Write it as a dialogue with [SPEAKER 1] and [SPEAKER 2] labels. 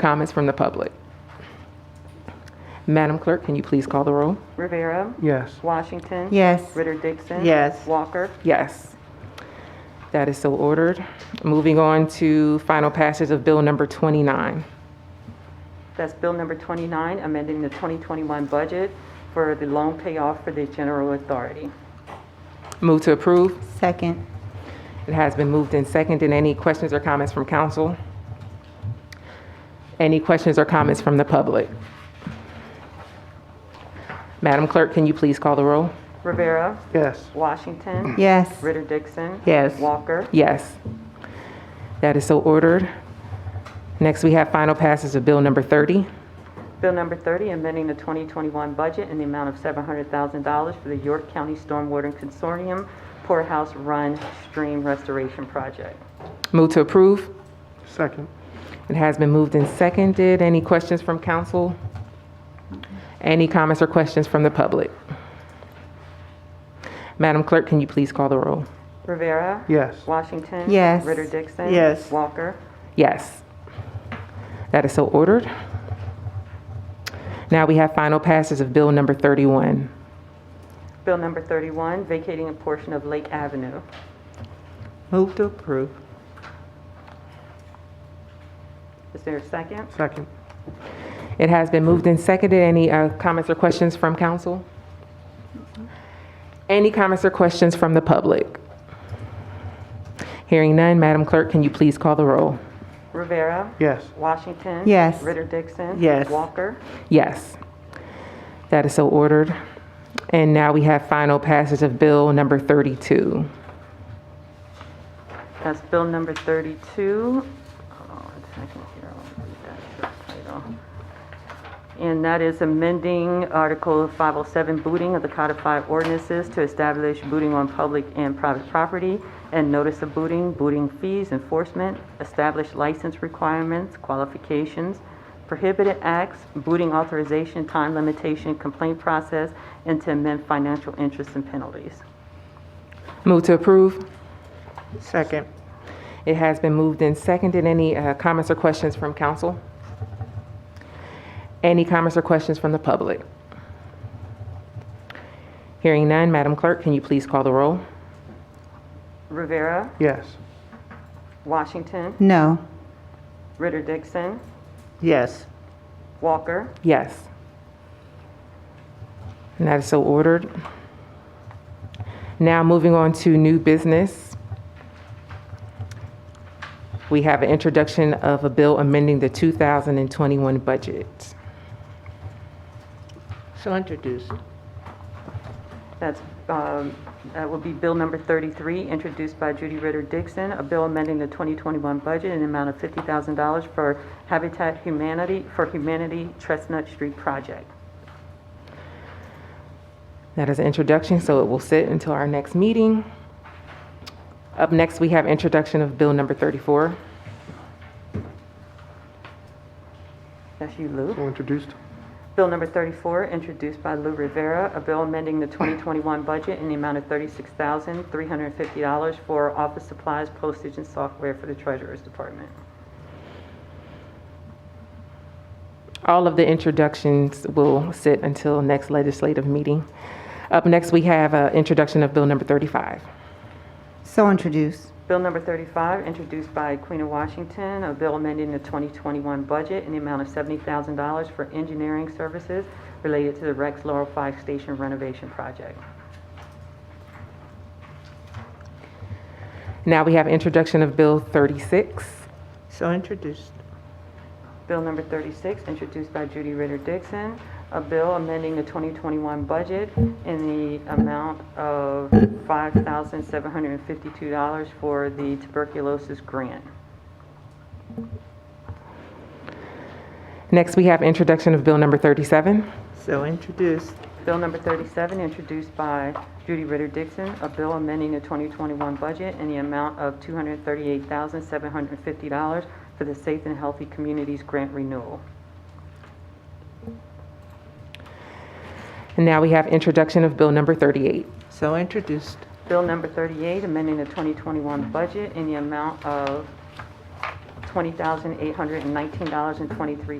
[SPEAKER 1] Comments from the public? Madam Clerk, can you please call the roll?
[SPEAKER 2] Rivera.
[SPEAKER 3] Yes.
[SPEAKER 2] Washington.
[SPEAKER 4] Yes.
[SPEAKER 2] Ritter Dixon.
[SPEAKER 4] Yes.
[SPEAKER 2] Walker.
[SPEAKER 1] Yes. That is so ordered. Moving on to final passage of Bill Number 29.
[SPEAKER 2] That's Bill number 29, amending the 2021 budget for the loan payoff for the general authority.
[SPEAKER 1] Move to approve.
[SPEAKER 4] Second.
[SPEAKER 1] It has been moved and seconded. Any questions or comments from council? Any questions or comments from the public? Madam Clerk, can you please call the roll?
[SPEAKER 2] Rivera.
[SPEAKER 3] Yes.
[SPEAKER 2] Washington.
[SPEAKER 4] Yes.
[SPEAKER 2] Ritter Dixon.
[SPEAKER 4] Yes.
[SPEAKER 2] Walker.
[SPEAKER 1] Yes. That is so ordered. Next, we have final passage of Bill Number 30.
[SPEAKER 2] Bill number 30, amending the 2021 budget in the amount of $700,000 for the York County Stormwater Consortium Poorhouse Run Stream Restoration Project.
[SPEAKER 1] Move to approve.
[SPEAKER 3] Second.
[SPEAKER 1] It has been moved and seconded. Any questions from council? Any comments or questions from the public? Madam Clerk, can you please call the roll?
[SPEAKER 2] Rivera.
[SPEAKER 3] Yes.
[SPEAKER 2] Washington.
[SPEAKER 4] Yes.
[SPEAKER 2] Ritter Dixon.
[SPEAKER 4] Yes.
[SPEAKER 2] Walker.
[SPEAKER 1] Yes. That is so ordered. Now we have final passage of Bill Number 31.
[SPEAKER 2] Bill number 31, vacating a portion of Lake Avenue.
[SPEAKER 4] Move to approve.
[SPEAKER 2] Is there a second?
[SPEAKER 3] Second.
[SPEAKER 1] It has been moved and seconded. Any uh, comments or questions from council? Any comments or questions from the public? Hearing none, Madam Clerk, can you please call the roll?
[SPEAKER 2] Rivera.
[SPEAKER 3] Yes.
[SPEAKER 2] Washington.
[SPEAKER 4] Yes.
[SPEAKER 2] Ritter Dixon.
[SPEAKER 4] Yes.
[SPEAKER 2] Walker.
[SPEAKER 1] Yes. That is so ordered. And now we have final passage of Bill Number 32.
[SPEAKER 2] That's bill number 32. Hold on one second here, I'll read that short title. And that is amending Article 507 booting of the codified ordinances to establish booting on public and private property and notice of booting, booting fees, enforcement, establish license requirements, qualifications, prohibited acts, booting authorization, time limitation, complaint process, and to amend financial interests and penalties.
[SPEAKER 1] Move to approve.
[SPEAKER 4] Second.
[SPEAKER 1] It has been moved and seconded. Any uh, comments or questions from council? Any comments or questions from the public? Hearing none, Madam Clerk, can you please call the roll?
[SPEAKER 2] Rivera,
[SPEAKER 3] Yes.
[SPEAKER 2] Washington,
[SPEAKER 4] No.
[SPEAKER 2] Ritter Dixon,
[SPEAKER 4] Yes.
[SPEAKER 2] Walker,
[SPEAKER 1] Yes. And that is so ordered. Now, moving on to new business. We have an introduction of a bill amending the 2021 budget.
[SPEAKER 4] So introduced.
[SPEAKER 2] that's, um, that will be Bill number 33, introduced by Judy Ritter Dixon, a bill amending the 2021 budget in the amount of $50,000 for Habitat Humanity, for Humanity Chestnut Street Project.
[SPEAKER 1] That is an introduction, so it will sit until our next meeting. Up next, we have introduction of Bill Number 34.
[SPEAKER 2] That's you, Lou.
[SPEAKER 3] So introduced.
[SPEAKER 2] Bill number 34, introduced by Lou Rivera, a bill amending the 2021 budget in the amount of $36,350 for office supplies, postage, and software for the Treasurer's Department.
[SPEAKER 1] All of the introductions will sit until next legislative meeting. Up next, we have an introduction of Bill Number 35.
[SPEAKER 4] So introduced.
[SPEAKER 2] Bill number 35, introduced by Queen of Washington, a bill amending the 2021 budget in the amount of $70,000 for engineering services related to the Rex Laurel Fire Station renovation project.
[SPEAKER 1] Now we have introduction of Bill 36.
[SPEAKER 4] So introduced.
[SPEAKER 2] Bill number 36, introduced by Judy Ritter Dixon, a bill amending the 2021 budget in the amount of $5,752 for the tuberculosis grant.
[SPEAKER 1] Next, we have introduction of Bill Number 37.
[SPEAKER 4] So introduced.
[SPEAKER 2] Bill number 37, introduced by Judy Ritter Dixon, a bill amending the 2021 budget in the amount of $238,750 for the Safe and Healthy Communities Grant Renewal.
[SPEAKER 1] And now we have introduction of Bill Number 38.
[SPEAKER 4] So introduced.
[SPEAKER 2] Bill number 38, amending the 2021 budget in the amount of $20,819.23